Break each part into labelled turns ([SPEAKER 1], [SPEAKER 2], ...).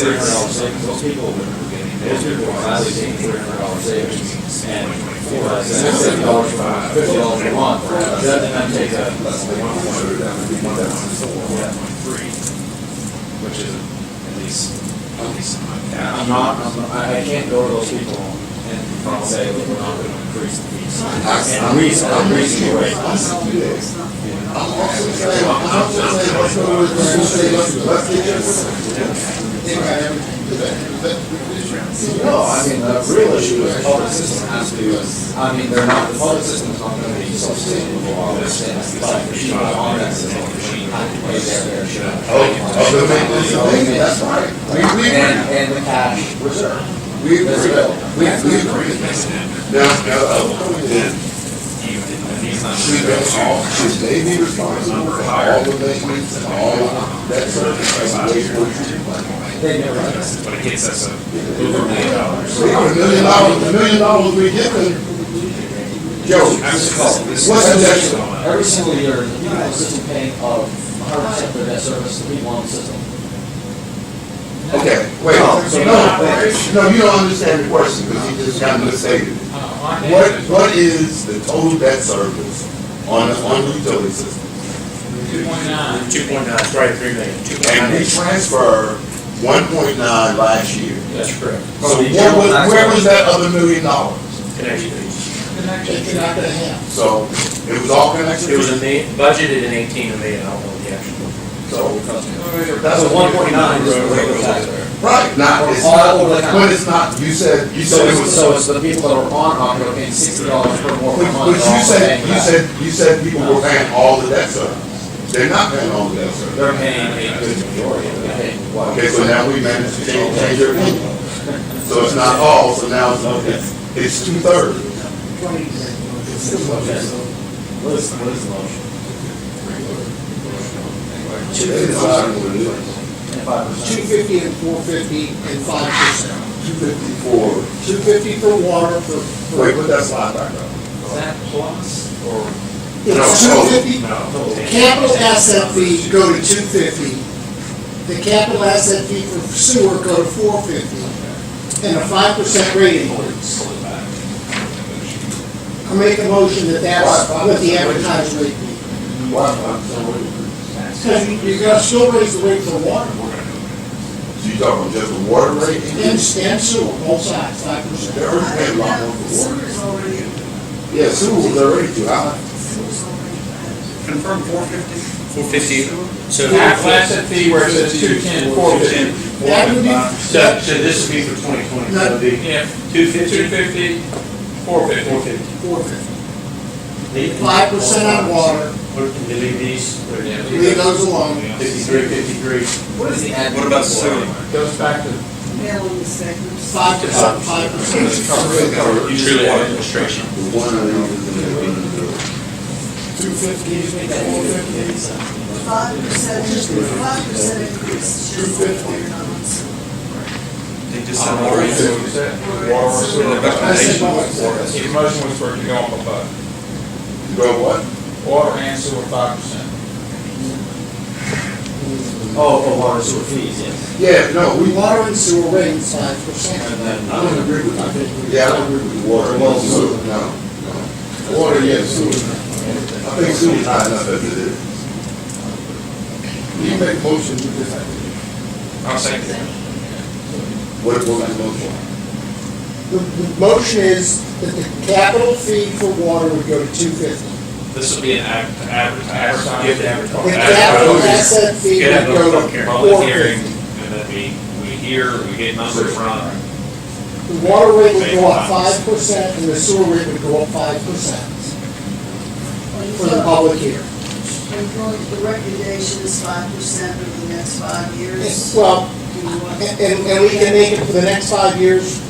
[SPEAKER 1] Three hundred dollar savings, most people, most people are highly paying three hundred dollar savings and four hundred fifty dollars, fifty dollars a month. That then take a one point, one thousand four, three, which is at least, at least. And I'm not, I'm not- I, I can't go to those people and say, look, we're not gonna increase the fees. I can't reason, I'm reasoning away. No, I mean, the real issue is the public system has to, I mean, they're not, the public system's not gonna be sustainable, I understand, but the people on that system, the machine, they their shit. That's right. And, and the cash reserve.
[SPEAKER 2] We,
[SPEAKER 1] That's
[SPEAKER 2] we,
[SPEAKER 1] real.
[SPEAKER 2] we, we agree. Now, now, uh, then, should they all, should they be responsible for all the maintenance and all that sort of stuff?
[SPEAKER 1] They never understand.
[SPEAKER 3] But it gets us a over a million dollars.
[SPEAKER 2] So, a million dollars, a million dollars we get them. Joe, what's the next one?
[SPEAKER 1] Every single year, the people in the system paying of hundred percent for that service, the people on the system.
[SPEAKER 2] Okay, wait, so no, no, you don't understand the question, because you just kind of stated it. What, what is the total debt service on, on the utility system?
[SPEAKER 3] Two point nine, sorry, three million, two point
[SPEAKER 2] And
[SPEAKER 3] nine.
[SPEAKER 2] we transferred one point nine last year.
[SPEAKER 1] That's correct.
[SPEAKER 2] So what was, where was that other million dollars?
[SPEAKER 3] Connection.
[SPEAKER 2] So it was all connected?
[SPEAKER 3] It was a ma, budgeted in eighteen and they, I don't know the actual.
[SPEAKER 2] So,
[SPEAKER 1] That's a one point nine is the regular tax rate.
[SPEAKER 2] right, not, it's not, but it's not, you said, you
[SPEAKER 1] So
[SPEAKER 2] said it
[SPEAKER 1] it's,
[SPEAKER 2] was.
[SPEAKER 1] so it's the people that are on Aqua are paying sixty dollars per more per
[SPEAKER 2] But,
[SPEAKER 1] month.
[SPEAKER 2] but
[SPEAKER 1] they're
[SPEAKER 2] you
[SPEAKER 1] also
[SPEAKER 2] said,
[SPEAKER 1] paying
[SPEAKER 2] you
[SPEAKER 1] that.
[SPEAKER 2] said, you said people were paying all the debt service. They're not paying all the debt service.
[SPEAKER 1] They're paying a good majority, they're paying what?
[SPEAKER 2] Okay, so now we managed to change, change your opinion. So it's not all, so now it's, it's, it's two thirds.
[SPEAKER 1] What is, what is the motion? And five
[SPEAKER 4] Two
[SPEAKER 1] percent?
[SPEAKER 4] fifty and four fifty and five percent.
[SPEAKER 2] Two fifty-four.
[SPEAKER 4] Two fifty for water for. for-
[SPEAKER 2] Wait, put that slide back up.
[SPEAKER 3] Is that plus or?
[SPEAKER 4] It's
[SPEAKER 2] No,
[SPEAKER 4] two
[SPEAKER 2] no.
[SPEAKER 4] fifty,
[SPEAKER 3] No.
[SPEAKER 4] capital asset fee go to two fifty. The capital asset fee for sewer go to four fifty. And a five percent rate increase. I make a motion that that's what the advertised rate be. Because you gotta still raise the rate for water
[SPEAKER 2] So you talking about just the water rate?
[SPEAKER 4] and, and sewer, both sides, five percent.
[SPEAKER 2] They already paid a lot more for water.
[SPEAKER 5] Sewer's already,
[SPEAKER 2] Yeah, sewer was already too high.
[SPEAKER 5] sewer's already.
[SPEAKER 6] Confirm four fifty?
[SPEAKER 3] Four fifty, so
[SPEAKER 6] Half
[SPEAKER 3] half
[SPEAKER 6] last
[SPEAKER 3] last.
[SPEAKER 6] at fee where it says two ten, four ten.
[SPEAKER 4] That would be
[SPEAKER 6] So, so this would be for twenty twenty, so it'd be
[SPEAKER 3] Yeah,
[SPEAKER 6] two
[SPEAKER 3] two
[SPEAKER 6] fifty,
[SPEAKER 3] fifty, four fifty.
[SPEAKER 6] four fifty.
[SPEAKER 4] four fifty. Five percent on water,
[SPEAKER 6] What, can they leave these, or
[SPEAKER 4] leave those alone.
[SPEAKER 6] fifty-three, fifty-three?
[SPEAKER 1] What is the ad?
[SPEAKER 3] What about sewer?
[SPEAKER 1] Goes back to
[SPEAKER 5] Mail in the second.
[SPEAKER 4] Five to five percent.
[SPEAKER 3] You truly have administration.
[SPEAKER 2] The one of them is in the-
[SPEAKER 4] Two fifty, you make that four fifty.
[SPEAKER 5] Five percent, five percent increase. Two fifty.
[SPEAKER 3] They just said more.
[SPEAKER 4] I said, well,
[SPEAKER 7] His motion was for it to go up above,
[SPEAKER 2] You know what?
[SPEAKER 7] water and sewer five percent.
[SPEAKER 1] Oh, for water sewer fees, yes.
[SPEAKER 2] Yeah, no, we,
[SPEAKER 4] water and sewer rates five percent.
[SPEAKER 1] And then,
[SPEAKER 2] I don't agree with, I think, yeah, I don't agree with water. Well, sewer, no, no. Water, yeah, sewer. I think sewer's high enough as it is. You make motion, you just have to.
[SPEAKER 3] I'll second that.
[SPEAKER 2] What, what was the motion?
[SPEAKER 4] The, the motion is that the capital fee for water would go to two fifty.
[SPEAKER 3] This will be an ad, advertising.
[SPEAKER 7] You have to
[SPEAKER 4] The capital asset fee
[SPEAKER 3] Get
[SPEAKER 4] would
[SPEAKER 3] a
[SPEAKER 4] go
[SPEAKER 3] public
[SPEAKER 4] to
[SPEAKER 3] hearing,
[SPEAKER 4] four
[SPEAKER 3] public hearing,
[SPEAKER 4] fifty.
[SPEAKER 3] and then we, we hear, we get numbers from,
[SPEAKER 4] The water rate would go up five percent and the sewer rate would go up five percent for the public here.
[SPEAKER 5] The recommendation is five percent over the next five years.
[SPEAKER 4] Well,
[SPEAKER 5] Do you want-
[SPEAKER 4] and, and and we can make it for the next five years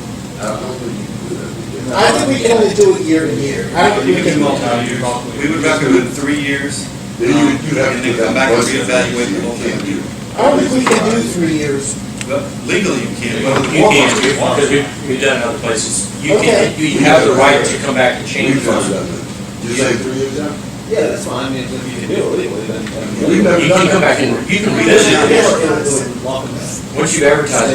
[SPEAKER 2] I don't think you could.
[SPEAKER 4] I think we can only do it year to year. I don't think we can.
[SPEAKER 8] We would recommend three years,
[SPEAKER 2] Then you, you'd have
[SPEAKER 8] And
[SPEAKER 2] to.
[SPEAKER 8] then
[SPEAKER 2] do that
[SPEAKER 8] come back and
[SPEAKER 2] budget.
[SPEAKER 8] reevaluate the whole
[SPEAKER 2] You can't
[SPEAKER 8] thing.
[SPEAKER 2] do it.
[SPEAKER 4] I don't think we can do three years.
[SPEAKER 8] but legally you can't. but
[SPEAKER 3] you can, because we've, we've done it other places. You can, you have the right to come back and
[SPEAKER 2] We
[SPEAKER 3] change
[SPEAKER 2] can
[SPEAKER 3] funds.
[SPEAKER 2] do that. You say three years out?
[SPEAKER 1] yeah, that's fine, I mean, if you can do it legally, then. then-
[SPEAKER 2] We've never
[SPEAKER 3] You
[SPEAKER 2] done
[SPEAKER 3] can come
[SPEAKER 2] that
[SPEAKER 3] back and, you can
[SPEAKER 1] This is-
[SPEAKER 3] revisit it.
[SPEAKER 1] this is-
[SPEAKER 3] Once you advertise